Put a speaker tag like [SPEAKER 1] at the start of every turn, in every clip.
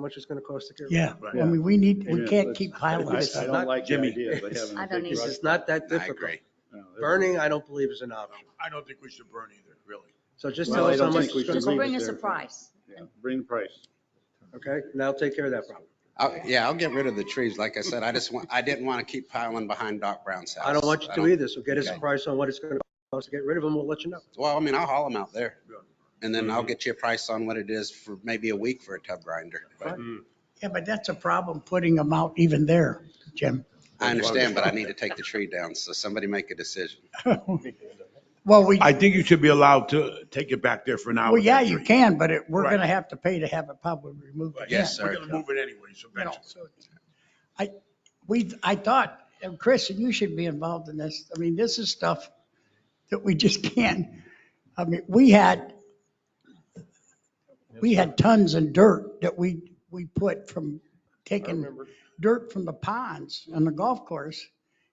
[SPEAKER 1] much it's gonna cost to get rid of
[SPEAKER 2] Yeah,
[SPEAKER 1] it.
[SPEAKER 2] I mean, we need, we can't keep piling
[SPEAKER 1] It's
[SPEAKER 2] this
[SPEAKER 3] I
[SPEAKER 2] up.
[SPEAKER 1] not-
[SPEAKER 3] don't like the
[SPEAKER 2] Jimmy.
[SPEAKER 3] idea of having
[SPEAKER 4] I
[SPEAKER 3] a
[SPEAKER 4] don't
[SPEAKER 3] big
[SPEAKER 1] It's
[SPEAKER 4] either.
[SPEAKER 3] rush.
[SPEAKER 1] just not that
[SPEAKER 5] I
[SPEAKER 1] difficult.
[SPEAKER 5] agree.
[SPEAKER 3] No, it-
[SPEAKER 1] Burning, I don't believe is an option.
[SPEAKER 6] I don't think we should burn either, really.
[SPEAKER 1] So just
[SPEAKER 3] Well,
[SPEAKER 1] tell
[SPEAKER 3] I
[SPEAKER 1] us how
[SPEAKER 3] don't
[SPEAKER 1] much
[SPEAKER 3] think we
[SPEAKER 1] it's gonna
[SPEAKER 4] Just
[SPEAKER 1] cost,
[SPEAKER 3] should leave
[SPEAKER 4] bring
[SPEAKER 3] it
[SPEAKER 4] us a
[SPEAKER 3] there.
[SPEAKER 4] price.
[SPEAKER 3] yeah, Bring price.
[SPEAKER 1] okay? And I'll take care of that problem.
[SPEAKER 5] I'll- Yeah, I'll get rid of the trees. Like I said, I just want, I didn't want to keep piling behind Doc Brown's house.
[SPEAKER 1] I don't want you to either, so get us a
[SPEAKER 5] Okay.
[SPEAKER 1] price on what it's gonna cost to get rid of them, we'll let you know.
[SPEAKER 5] Well, I mean, I'll haul them out there. And then
[SPEAKER 1] Mm-hmm.
[SPEAKER 5] I'll get you a price on what it is for maybe a week for a tub grinder. But
[SPEAKER 2] Yeah, but that's a problem putting them out even there, Jim.
[SPEAKER 5] I understand, but I need to take the tree down, so somebody make a decision.
[SPEAKER 2] Well, we,
[SPEAKER 6] I think you should be allowed to take it back there for an hour.
[SPEAKER 2] well, yeah, you can, but it, we're
[SPEAKER 6] Right.
[SPEAKER 2] gonna have to pay to have it probably removed.
[SPEAKER 6] Right.
[SPEAKER 5] Yes,
[SPEAKER 2] again,
[SPEAKER 5] sir.
[SPEAKER 6] We're gonna move it anyways,
[SPEAKER 2] you know,
[SPEAKER 6] eventually.
[SPEAKER 2] so it's- I, we, I thought, and Chris, you should be involved in this. I mean, this is stuff that we just can't. I mean, we had, we had tons of dirt that we, we put from taking dirt from the ponds on the golf course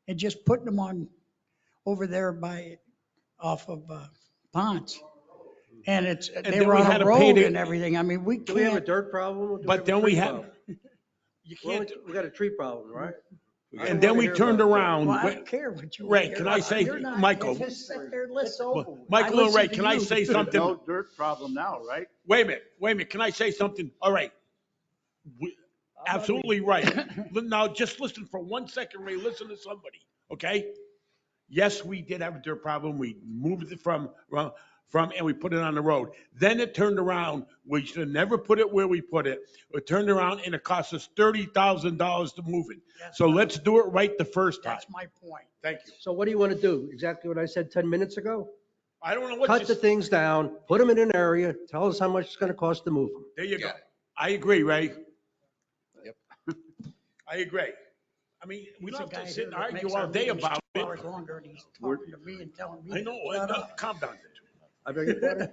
[SPEAKER 2] and just putting them on over there by, off of uh, ponds. And it's, they
[SPEAKER 7] then
[SPEAKER 2] were
[SPEAKER 7] we
[SPEAKER 2] on
[SPEAKER 7] had
[SPEAKER 2] a
[SPEAKER 7] to pay
[SPEAKER 2] road
[SPEAKER 7] to-
[SPEAKER 2] and everything. I mean, we
[SPEAKER 1] Do we have a
[SPEAKER 2] can't,
[SPEAKER 1] dirt problem? or do we
[SPEAKER 7] But
[SPEAKER 1] a
[SPEAKER 7] then we
[SPEAKER 1] tree
[SPEAKER 7] had-
[SPEAKER 1] problem?
[SPEAKER 7] You
[SPEAKER 1] Well,
[SPEAKER 7] can't,
[SPEAKER 1] we got a tree problem, right? I don't
[SPEAKER 7] and then
[SPEAKER 1] wanna
[SPEAKER 7] we
[SPEAKER 1] hear
[SPEAKER 7] turned
[SPEAKER 1] about it.
[SPEAKER 7] around.
[SPEAKER 2] well, I
[SPEAKER 7] Wait,
[SPEAKER 2] don't care what you. want
[SPEAKER 7] Ray,
[SPEAKER 2] to
[SPEAKER 7] can
[SPEAKER 2] hear
[SPEAKER 7] I
[SPEAKER 2] about.
[SPEAKER 7] say-
[SPEAKER 2] You're not-
[SPEAKER 7] Michael.
[SPEAKER 2] Just sit there, let's over with.
[SPEAKER 7] Michael
[SPEAKER 2] I
[SPEAKER 7] and Ray,
[SPEAKER 2] listen to
[SPEAKER 7] can I
[SPEAKER 2] you.
[SPEAKER 7] say
[SPEAKER 3] There's
[SPEAKER 7] something?
[SPEAKER 3] No dirt problem now, right?
[SPEAKER 7] Wait a minute, wait a minute. Can I say something? All right. We- Absolutely right. Li- Now, just listen for one second, Ray. Listen to somebody, okay? Yes, we did have a dirt problem. We moved it from, well, from, and we put it on the road. Then it turned around. We should have never put it where we put it. It turned around and it cost us $30,000 to move it.
[SPEAKER 2] That's
[SPEAKER 7] So let's do it right the first time.
[SPEAKER 2] That's my point.
[SPEAKER 7] Thank you.
[SPEAKER 1] So what do you want to do? Exactly what I said 10 minutes ago?
[SPEAKER 7] I don't know what
[SPEAKER 1] Cut
[SPEAKER 7] you
[SPEAKER 1] the things down, put them in an area, tell us how much it's going to cost to move them.
[SPEAKER 7] There you go.
[SPEAKER 5] Got it.
[SPEAKER 7] I agree, Ray.
[SPEAKER 5] Yep.
[SPEAKER 7] I agree. I mean, we
[SPEAKER 2] There's a
[SPEAKER 7] don't have
[SPEAKER 2] guy
[SPEAKER 7] to
[SPEAKER 2] here
[SPEAKER 7] sit and
[SPEAKER 2] that
[SPEAKER 7] argue
[SPEAKER 2] makes our
[SPEAKER 7] all day
[SPEAKER 2] meetings
[SPEAKER 7] about
[SPEAKER 2] two
[SPEAKER 7] it.
[SPEAKER 2] Hours longer and he's talking to me and telling me.
[SPEAKER 7] I know,
[SPEAKER 2] to shut
[SPEAKER 7] uh,
[SPEAKER 2] up.
[SPEAKER 7] calm down.
[SPEAKER 1] I beg your pardon?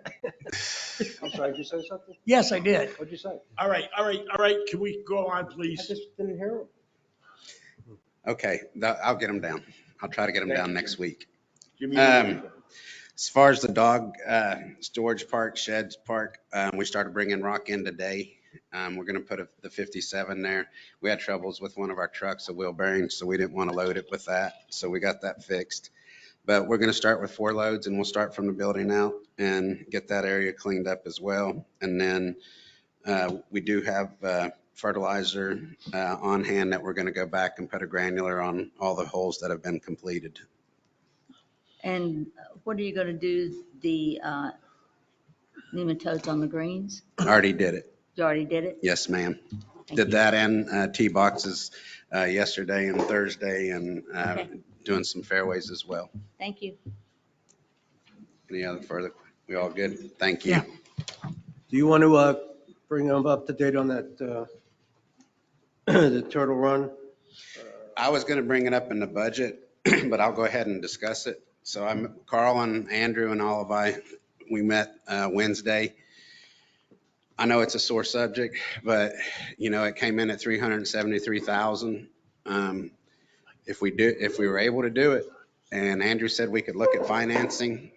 [SPEAKER 1] I'm sorry, did you say something?
[SPEAKER 2] Yes, I did.
[SPEAKER 1] What'd you say?
[SPEAKER 7] All right, all right, all right. Can we go on,
[SPEAKER 1] I
[SPEAKER 7] please?
[SPEAKER 1] just didn't hear him.
[SPEAKER 5] Okay, tha- I'll get them down. I'll try to get them down next week.
[SPEAKER 3] Jimmy,
[SPEAKER 5] Um, As far as the dog, uh, storage park, sheds park, um, we started bringing rock in today. Um, we're gonna put a- the 57 there. We had troubles with one of our trucks, a wheel bearing, so we didn't want to load it with that. So we got that fixed. But we're gonna start with four loads and we'll start from the building out and get that area cleaned up as well. And then, uh, we do have, uh, fertilizer, uh, on hand that we're gonna go back and put a granular on all the holes that have been completed.
[SPEAKER 4] And uh, what are you going to do, the uh, nematodes on the greens?
[SPEAKER 5] Already did it.
[SPEAKER 4] You already did it?
[SPEAKER 5] Yes, ma'am.
[SPEAKER 4] Thank
[SPEAKER 5] Did
[SPEAKER 4] you.
[SPEAKER 5] that and uh, tee boxes uh, yesterday and Thursday and uh,
[SPEAKER 4] Okay.
[SPEAKER 5] doing some fairways as well.
[SPEAKER 4] Thank you.
[SPEAKER 5] Any other further? We all good? Thank you.
[SPEAKER 2] Yeah.
[SPEAKER 1] Do you want to uh, bring them up to date on that, uh, the Turtle Run?
[SPEAKER 5] I was going to bring it up in the budget, but I'll go ahead and discuss it. So I'm, Carl and Andrew and all of I, we met uh, Wednesday. I know it's a sore subject, but you know, it came in at 373,000. Um, If we do, if we were able to do it, and Andrew said we could look at financing,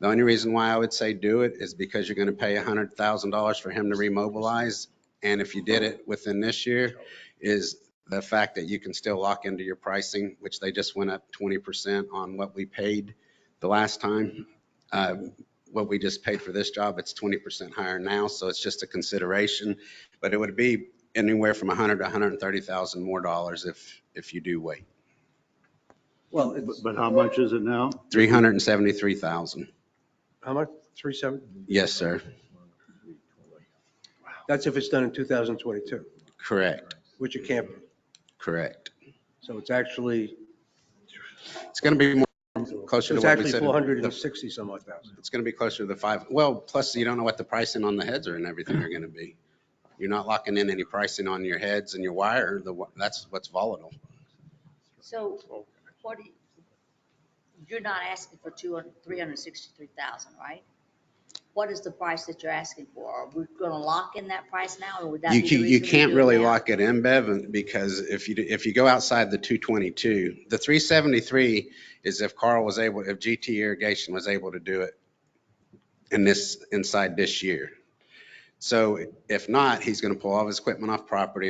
[SPEAKER 5] the only reason why I would say do it is because you're going to pay $100,000 for him to remobilize. And if you did it within this year, is the fact that you can still lock into your pricing, which they just went up 20% on what we paid the last time. Uh, What we just paid for this job, it's 20% higher now, so it's just a consideration. But it would be anywhere from 100 to 130,000 more dollars if, if you do wait.
[SPEAKER 1] Well,
[SPEAKER 3] But
[SPEAKER 1] it's,
[SPEAKER 3] but how much is it now?
[SPEAKER 5] 373,000.
[SPEAKER 1] how much? Three seven?
[SPEAKER 5] Yes, sir.
[SPEAKER 1] That's if it's done in 2022,
[SPEAKER 5] Correct,
[SPEAKER 1] which it can't be.
[SPEAKER 5] correct.
[SPEAKER 1] So it's actually,
[SPEAKER 5] It's going to be more
[SPEAKER 1] so
[SPEAKER 5] closer to
[SPEAKER 1] it's
[SPEAKER 5] what we
[SPEAKER 1] actually
[SPEAKER 5] said.
[SPEAKER 1] 460 some odd thousand.
[SPEAKER 5] It's going to be closer to the five. Well, plus you don't know what the pricing on the heads are and everything are going to be. You're not locking in any pricing on your heads and your wire. The, wi- that's what's volatile.
[SPEAKER 4] So what, do you- you're not asking for 200, 363,000, right? What is the price that you're asking for? Are we going to lock in that price now or would that be
[SPEAKER 5] You
[SPEAKER 4] the
[SPEAKER 5] can't, you
[SPEAKER 4] reason we
[SPEAKER 5] can't
[SPEAKER 4] do it
[SPEAKER 5] really
[SPEAKER 4] now?
[SPEAKER 5] lock it in, Bevan, because if you, do- if you go outside the 222, the 373 is if Carl was able, if GT Irrigation was able to do it in this, inside this year. So if not, he's going to pull all of his equipment off property